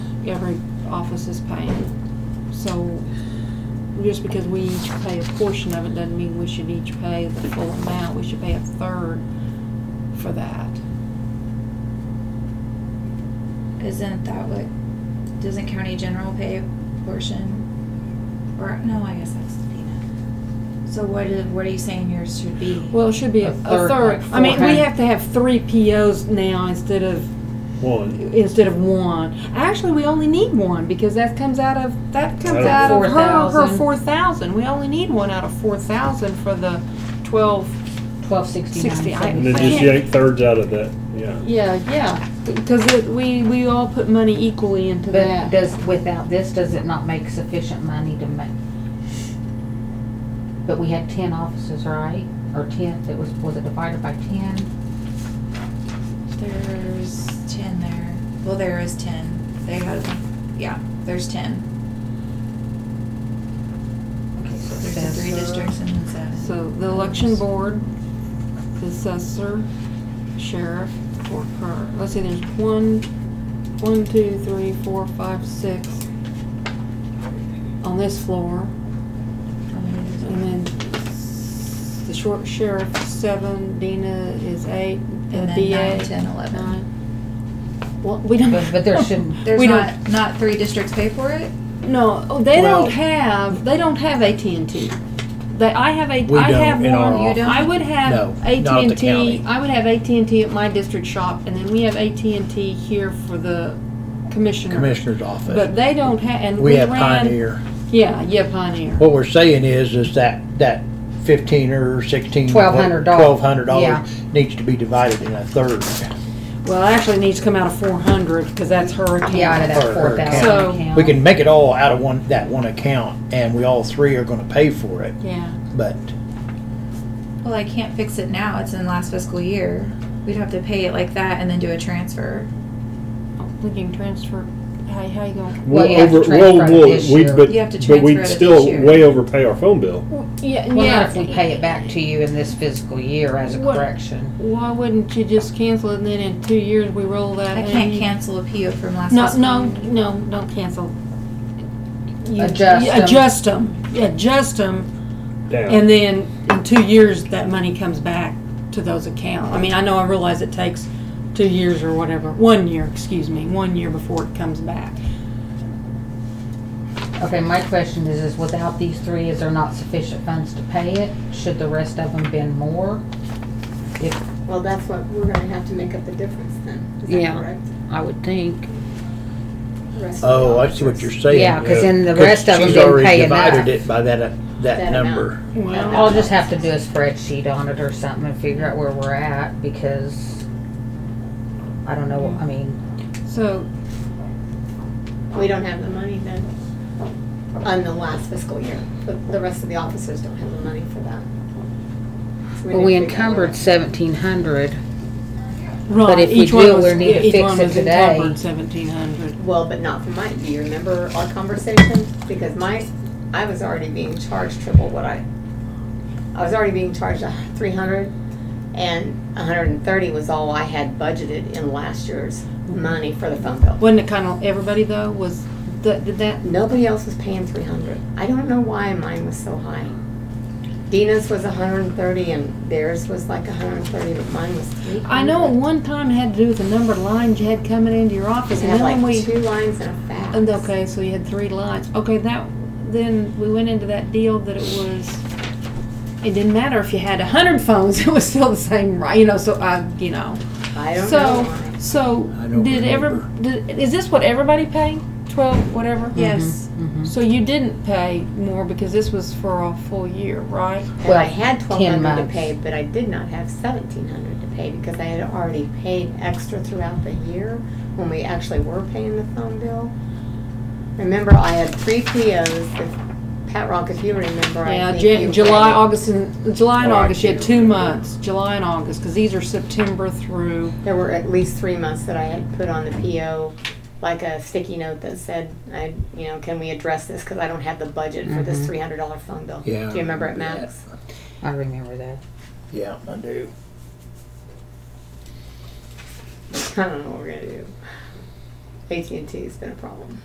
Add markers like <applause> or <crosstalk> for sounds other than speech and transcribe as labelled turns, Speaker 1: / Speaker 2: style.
Speaker 1: every office is paying. So just because we each pay a portion of it doesn't mean we should each pay the full amount. We should pay a third for that.
Speaker 2: Isn't that what, doesn't county general pay a portion? Or, no, I guess that's the peanut. So what is, what are you saying yours should be?
Speaker 1: Well, it should be a
Speaker 3: A third,
Speaker 1: third.
Speaker 3: like
Speaker 1: I mean, we
Speaker 3: four.
Speaker 1: have to have three POs now instead of,
Speaker 4: One.
Speaker 1: instead of one. Actually, we only need one because that comes out of, that comes
Speaker 4: Out of
Speaker 1: out of her, her
Speaker 3: 4,000.
Speaker 1: four thousand. We only need one out of four thousand for the twelve
Speaker 3: Twelve sixty-nine.
Speaker 1: 60, I-
Speaker 4: And then
Speaker 1: I
Speaker 4: just
Speaker 1: can't-
Speaker 4: yank thirds out of that, yeah.
Speaker 1: Yeah, yeah, because it, we, we all put money equally into
Speaker 3: But
Speaker 1: that.
Speaker 3: does, without this, does it not make sufficient money to make? But we had ten offices, right? Or ten, it was, was it divided by ten?
Speaker 2: There's ten there. Well, there is ten. They had, yeah, there's ten.
Speaker 3: Okay, so it
Speaker 2: There's the three
Speaker 3: says-
Speaker 2: districts and then seven.
Speaker 1: uh, So the election board, the assessor, sheriff, or per, let's see, there's one, one, two, three, four, five, six on this floor,
Speaker 2: How many is it?
Speaker 1: and then s- the short sheriff, seven, Dina is eight,
Speaker 2: And
Speaker 1: uh,
Speaker 2: then nine,
Speaker 1: DA,
Speaker 2: 10, 11.
Speaker 1: nine. Well, we don't.
Speaker 3: But, but there <laughs> shouldn't,
Speaker 2: There's
Speaker 1: Uh, we don't-
Speaker 2: not, not three districts pay for it?
Speaker 1: No, oh, they
Speaker 4: Well-
Speaker 1: don't have. They don't have AT and T. They, I have a.
Speaker 5: We
Speaker 1: I
Speaker 5: don't
Speaker 1: have
Speaker 5: in our
Speaker 1: one.
Speaker 2: office.
Speaker 1: I would
Speaker 5: No,
Speaker 1: have
Speaker 5: not
Speaker 1: AT
Speaker 5: at the
Speaker 1: and T.
Speaker 5: county.
Speaker 1: I would have AT and T at my district shop, and then we have AT and T here for the commissioner.
Speaker 5: commissioner's
Speaker 1: But
Speaker 5: office.
Speaker 1: they don't have. And
Speaker 5: We have
Speaker 1: ran,
Speaker 5: Pioneer. Oh.
Speaker 1: Yeah, yeah, Pioneer.
Speaker 5: What we're saying is, is that, that fifteen or sixteen.
Speaker 3: $1,200.
Speaker 5: Twelve hundred
Speaker 3: Yeah.
Speaker 5: dollars needs to be divided in a third.
Speaker 1: Well, it actually needs to come out of four hundred because that's hurricane.
Speaker 3: yeah, out of that
Speaker 5: Or- or
Speaker 3: four thousand
Speaker 1: So-
Speaker 3: account.
Speaker 5: We can make it all out of one, that one account, and we all three are gonna pay for it,
Speaker 1: Yeah.
Speaker 5: but
Speaker 2: Well, I can't fix it now. It's in last fiscal year. We'd have to pay it like that and then do a transfer.
Speaker 1: We can transfer. How, how you going?
Speaker 3: Well, you
Speaker 4: We'll
Speaker 3: have to
Speaker 4: over-
Speaker 3: transfer
Speaker 4: we'll-
Speaker 3: it
Speaker 4: we'll-
Speaker 3: this
Speaker 4: we-
Speaker 3: year.
Speaker 4: but-
Speaker 2: You have to
Speaker 4: But
Speaker 2: transfer it
Speaker 4: we'd
Speaker 2: this
Speaker 4: still
Speaker 2: year.
Speaker 4: way overpay our phone bill.
Speaker 1: Yeah,
Speaker 3: Well,
Speaker 1: yeah.
Speaker 3: not if we pay it back to you in this fiscal year as a
Speaker 1: What-
Speaker 3: correction.
Speaker 1: Why wouldn't you just cancel it and then in two years we roll that?
Speaker 2: I can't
Speaker 1: in?
Speaker 2: cancel a PO from last
Speaker 1: No,
Speaker 2: fiscal.
Speaker 1: no, no, don't cancel. You-
Speaker 3: Adjust
Speaker 1: you
Speaker 3: 'em.
Speaker 1: Adjust them, adjust them,
Speaker 4: Down.
Speaker 1: and then in two years, that money comes back to those accounts. I mean, I know, I realize it takes two years or whatever, one year, excuse me, one year before it comes back.
Speaker 3: Okay, my question is, is without these three, is there not sufficient funds to pay it? Should the rest of them been more?
Speaker 6: Well, that's what, we're gonna have to make up the difference then. Is that
Speaker 3: Yeah.
Speaker 6: correct?
Speaker 3: I would think.
Speaker 6: The rest of
Speaker 5: Oh,
Speaker 6: the
Speaker 5: I see what
Speaker 6: officers.
Speaker 5: you're saying.
Speaker 3: Yeah, 'cause then the
Speaker 5: 'Cause
Speaker 3: rest of 'em
Speaker 5: uh, she's
Speaker 3: didn't
Speaker 5: already
Speaker 3: pay enough.
Speaker 5: Divided it by that, uh, that
Speaker 6: That amount.
Speaker 5: number.
Speaker 1: Well,
Speaker 3: I'll just have to do a spreadsheet on it or something and figure out where we're at because I don't know, I mean,
Speaker 1: so,
Speaker 6: We don't have the money then, on the last fiscal year, but the rest of the officers don't have the money for that. So
Speaker 3: well, we
Speaker 6: need to figure out where
Speaker 3: encumbered
Speaker 6: that-
Speaker 3: seventeen hundred.
Speaker 1: right,
Speaker 3: if we
Speaker 1: each one
Speaker 3: do,
Speaker 1: was,
Speaker 3: we need to
Speaker 1: each
Speaker 3: fix
Speaker 1: one
Speaker 3: it
Speaker 1: was
Speaker 3: today.
Speaker 1: encumbered seventeen hundred.
Speaker 6: Well, but not for mine, do you remember our conversation? Because my, I was already being charged triple what I, I was already being charged a three hundred, and a hundred and thirty was all I had budgeted in last year's money for the phone bill.
Speaker 1: Wasn't it kind of, everybody though, was, that, did that,
Speaker 6: Nobody else was paying three hundred. I don't know why mine was so high. Dina's was hundred and thirty and theirs was like hundred and thirty, but mine was three hundred.
Speaker 1: I know at one time it had to do with the number of lines you had coming into your
Speaker 6: It
Speaker 1: office, and
Speaker 6: had
Speaker 1: then when we.
Speaker 6: like two lines and a fax.
Speaker 1: And okay, so you had three lines. Okay, that, then we went into that deal that it was, it didn't matter if you had a hundred phones, <laughs> it was still the same, right? You know, so I, you know.
Speaker 6: I don't know
Speaker 1: So,
Speaker 6: why.
Speaker 1: so,
Speaker 5: I don't
Speaker 1: did ever, did, is this what everybody paid? Twelve,
Speaker 6: Mm-hmm.
Speaker 1: whatever?
Speaker 2: Yes.
Speaker 1: So you didn't pay more because this was for a full year, right?
Speaker 6: And I
Speaker 3: Well,
Speaker 6: had twelve
Speaker 3: 10
Speaker 6: hundred to
Speaker 3: months.
Speaker 6: pay, but I did not have seventeen hundred to pay because I had already paid extra throughout the year when we actually were paying the phone bill. Remember, I had three POs, that- Pat Rock, if you remember, I
Speaker 1: Yeah,
Speaker 6: think
Speaker 1: Jan,
Speaker 6: you
Speaker 1: July,
Speaker 6: read.
Speaker 1: August, and, July and
Speaker 4: Oh, I
Speaker 1: August, you had
Speaker 4: can't
Speaker 1: two
Speaker 4: remember.
Speaker 1: months, July and August, because these are September through,
Speaker 6: There were at least three months that I had put on the PO, like a sticky note that said, I, you know, can we address this? Cause I don't have the budget for this three hundred dollar phone bill.
Speaker 5: Mm-hmm. Yeah,
Speaker 6: Do you remember it,
Speaker 5: remember
Speaker 6: Max? <laughs>
Speaker 3: I remember that.
Speaker 5: Yeah, I do.
Speaker 6: I don't know what we're gonna do. AT&T's been a problem.